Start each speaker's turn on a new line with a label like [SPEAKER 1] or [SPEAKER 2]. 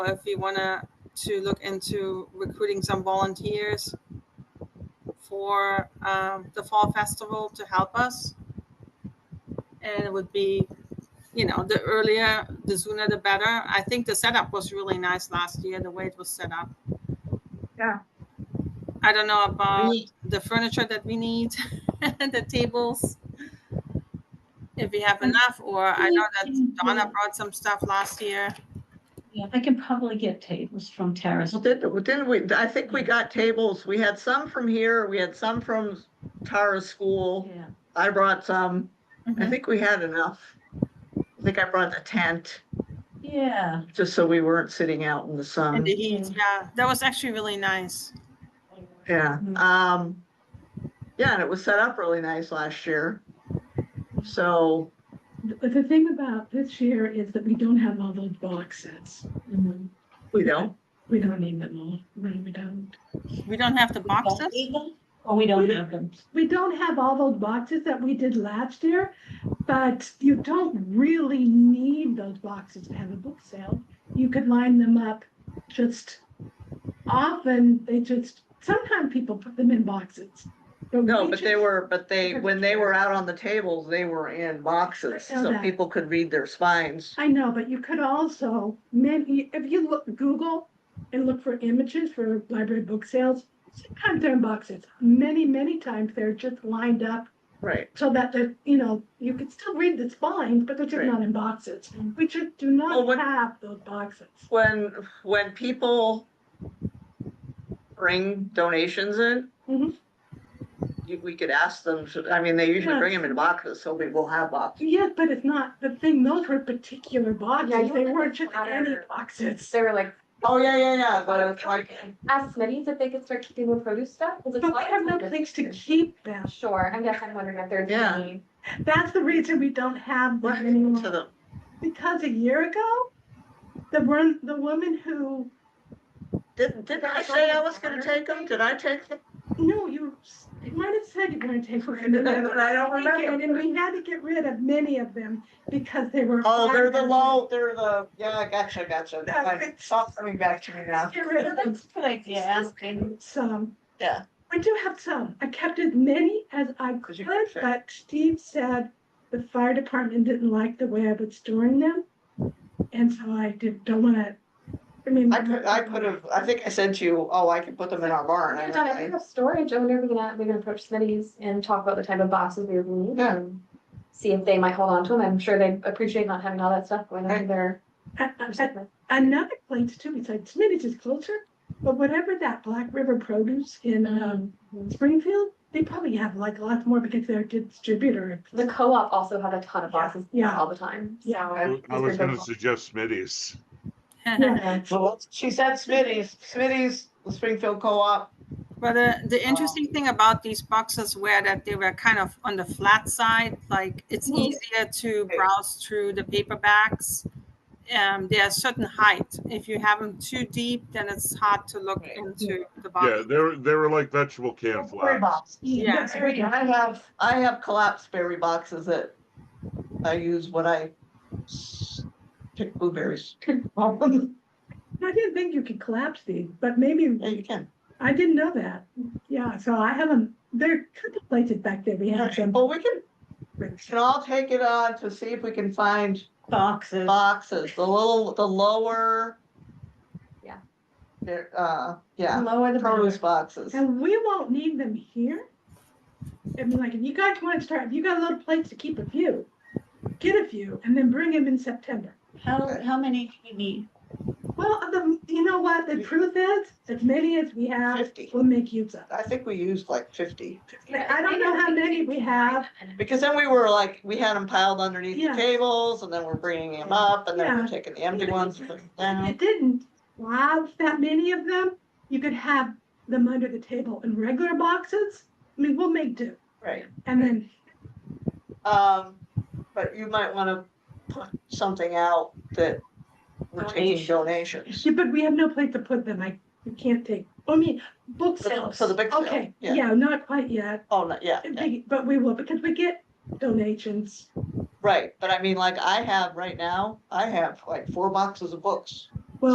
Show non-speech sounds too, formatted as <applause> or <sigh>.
[SPEAKER 1] if we wanna to look into recruiting some volunteers for um, the fall festival to help us. And it would be, you know, the earlier, the sooner, the better. I think the setup was really nice last year, the way it was set up.
[SPEAKER 2] Yeah.
[SPEAKER 1] I don't know about
[SPEAKER 3] We-
[SPEAKER 1] the furniture that we need, <laughs> the tables. If we have enough, or I know that Donna brought some stuff last year.
[SPEAKER 3] Yeah, I can probably get tables from Terrace.
[SPEAKER 4] Well, didn't, well, didn't we, I think we got tables, we had some from here, we had some from Tara's school,
[SPEAKER 3] Yeah,
[SPEAKER 4] I brought some, I
[SPEAKER 5] Mm-hmm.
[SPEAKER 1] Mhm.
[SPEAKER 4] think we had enough. I think I brought a tent,
[SPEAKER 3] yeah.
[SPEAKER 4] just so we weren't sitting out in the
[SPEAKER 1] And
[SPEAKER 4] sun,
[SPEAKER 1] the heat, yeah, that was actually really nice.
[SPEAKER 4] yeah,
[SPEAKER 5] Mm-hmm.
[SPEAKER 3] Mhm.
[SPEAKER 4] um, yeah, and it was set up really nice last year. So,
[SPEAKER 5] But the thing about this year is that we don't have all those box sets.
[SPEAKER 3] Mhm.
[SPEAKER 4] we don't,
[SPEAKER 5] We don't need them all. No, we don't.
[SPEAKER 1] We don't have the
[SPEAKER 3] We don't
[SPEAKER 1] boxes.
[SPEAKER 3] need them, Or Oh, we don't have them.
[SPEAKER 5] We don't have all those boxes that we did last year, but you don't really need those boxes to have a book sale. You could line them up just often, they just, sometimes people put them in boxes.
[SPEAKER 4] no,
[SPEAKER 5] we
[SPEAKER 4] but they
[SPEAKER 5] just-
[SPEAKER 4] were, but they, when they were out on the tables, they were in boxes,
[SPEAKER 5] I know
[SPEAKER 4] so
[SPEAKER 5] that.
[SPEAKER 4] people could read their spines.
[SPEAKER 5] I know, but you could also, many, if you look, Google and look for images for library book sales, sometimes they're in boxes. Many, many times they're just lined up
[SPEAKER 4] Right,
[SPEAKER 5] so that the, you know, you can still read the spines, but they're just
[SPEAKER 4] Right. Mm-hmm.
[SPEAKER 5] not in boxes. We just do
[SPEAKER 4] Well,
[SPEAKER 5] not
[SPEAKER 4] what-
[SPEAKER 5] have those boxes.
[SPEAKER 4] when, when people bring donations in,
[SPEAKER 5] Mhm.
[SPEAKER 4] you- we could ask them, to- I mean, they usually bring them in boxes, so we will have boxes.
[SPEAKER 5] Yes, but it's not, the thing, those were particular boxes.
[SPEAKER 6] you
[SPEAKER 5] They
[SPEAKER 6] were
[SPEAKER 5] weren't just
[SPEAKER 6] out of
[SPEAKER 5] any
[SPEAKER 6] your-
[SPEAKER 5] boxes.
[SPEAKER 6] <laughs> They were like,
[SPEAKER 4] Oh, yeah, yeah, yeah, but it's like,
[SPEAKER 6] ask Smitty's if they could start keeping the produce stuff. Is it
[SPEAKER 5] But we have no place to keep them.
[SPEAKER 6] Sure, I guess I'm wondering if there's.
[SPEAKER 4] Yeah.
[SPEAKER 6] any-
[SPEAKER 5] That's the reason we don't have
[SPEAKER 4] what
[SPEAKER 5] them
[SPEAKER 4] happened
[SPEAKER 5] anymore.
[SPEAKER 4] to them?
[SPEAKER 5] Because a year ago, the one, the woman who,
[SPEAKER 4] Didn't, didn't I say I was gonna take them? Did I take them?
[SPEAKER 5] no, you, s- you might have said you were gonna take. one, and then-
[SPEAKER 4] <laughs> I don't remember.
[SPEAKER 5] And we had to get rid of many of them because they were.
[SPEAKER 4] Oh, they're the low, they're the, yeah, gotcha, gotcha. I- Stop coming back to me now.
[SPEAKER 5] Get rid of them,
[SPEAKER 3] That's a good idea, asking.
[SPEAKER 5] some.
[SPEAKER 4] Yeah.
[SPEAKER 5] I do have some. I kept as many as I
[SPEAKER 4] Because you
[SPEAKER 5] could,
[SPEAKER 4] can fit.
[SPEAKER 5] but Steve said the fire department didn't like the way I was storing them. And so I did, don't wanna, I mean.
[SPEAKER 4] I put, I put a, I think I sent you, oh, I can put them in our barn.
[SPEAKER 6] Yeah, Donna, if you
[SPEAKER 4] I-
[SPEAKER 6] have storage, I wonder if we can, we can approach Smitty's and talk about the type of boxes we would need.
[SPEAKER 4] Yeah.
[SPEAKER 6] and See if they might hold on to them. I'm sure they'd appreciate not having all that stuff going on
[SPEAKER 4] Right.
[SPEAKER 6] in their.
[SPEAKER 5] I- I- I-
[SPEAKER 6] recycling.
[SPEAKER 5] another place too, besides Smitty's is closer, but whatever that Black River produce in um, Springfield, they probably have like a lot more because they're a distributor.
[SPEAKER 6] The co-op also had a ton of boxes
[SPEAKER 5] Yeah.
[SPEAKER 6] all the time, so.
[SPEAKER 5] Yeah.
[SPEAKER 7] I I was
[SPEAKER 6] Mr.
[SPEAKER 7] gonna
[SPEAKER 6] Bill.
[SPEAKER 7] suggest Smitty's.
[SPEAKER 6] Yeah.
[SPEAKER 4] Well, she said Smitty's, Smitty's, the Springfield Co-op.
[SPEAKER 1] But the, the interesting thing about these boxes were that they were kind of on the flat side, like it's
[SPEAKER 5] Mhm.
[SPEAKER 1] easier to browse through the paperbacks. Um, they are certain height. If you have them too deep, then it's hard to look
[SPEAKER 4] Right.
[SPEAKER 1] into the
[SPEAKER 7] Yeah,
[SPEAKER 1] body.
[SPEAKER 7] they were, they were like vegetable can
[SPEAKER 4] Berry
[SPEAKER 7] flags.
[SPEAKER 4] box.
[SPEAKER 1] Yeah.
[SPEAKER 5] That's very good.
[SPEAKER 4] I have, I have collapsed berry boxes that I use when I pick <laughs> blueberries. Yeah,
[SPEAKER 5] I didn't think you could collapse these, but maybe,
[SPEAKER 4] you can.
[SPEAKER 5] I didn't know that. Yeah, so I haven't, they're contemplated back there. We have them.
[SPEAKER 4] Well, we can, we can all take it on to see if we can find
[SPEAKER 3] Boxes.
[SPEAKER 4] boxes, the little, the lower.
[SPEAKER 6] Yeah.
[SPEAKER 4] There, uh, yeah,
[SPEAKER 3] Lower the
[SPEAKER 4] produce boxes.
[SPEAKER 5] And we won't need them here. I mean, like, if you guys want to start, if you got a little place to keep a few, get a few and then bring them in September.
[SPEAKER 3] How, how many do we need?
[SPEAKER 5] Well, the, you know what, the truth is, as many as we have,
[SPEAKER 4] 50.
[SPEAKER 5] we'll make use of.
[SPEAKER 4] I think we used like fifty.
[SPEAKER 5] Like, I don't know how many we have,
[SPEAKER 4] Because then we were like, we had them piled underneath
[SPEAKER 5] Yeah.
[SPEAKER 4] the tables and then we're bringing them up and then we're taking the empty ones and putting them
[SPEAKER 5] if you
[SPEAKER 4] down.
[SPEAKER 5] didn't have that many of them, you could have them under the table in regular boxes. I mean, we'll make do,
[SPEAKER 4] <laughs> Right.
[SPEAKER 5] and then,
[SPEAKER 4] Um, but you might wanna put something out that we're taking <laughs> donations.
[SPEAKER 5] yeah, but we have no place to put them, I, we can't take, I mean, book
[SPEAKER 4] For the-
[SPEAKER 5] sales.
[SPEAKER 4] for the big sale,
[SPEAKER 5] Okay,
[SPEAKER 4] yeah.
[SPEAKER 5] yeah, not quite yet,
[SPEAKER 4] Oh, no, yeah, yeah,
[SPEAKER 5] big- but we will, because we get donations.
[SPEAKER 4] right. But I mean, like I have right now, I have like four boxes of books.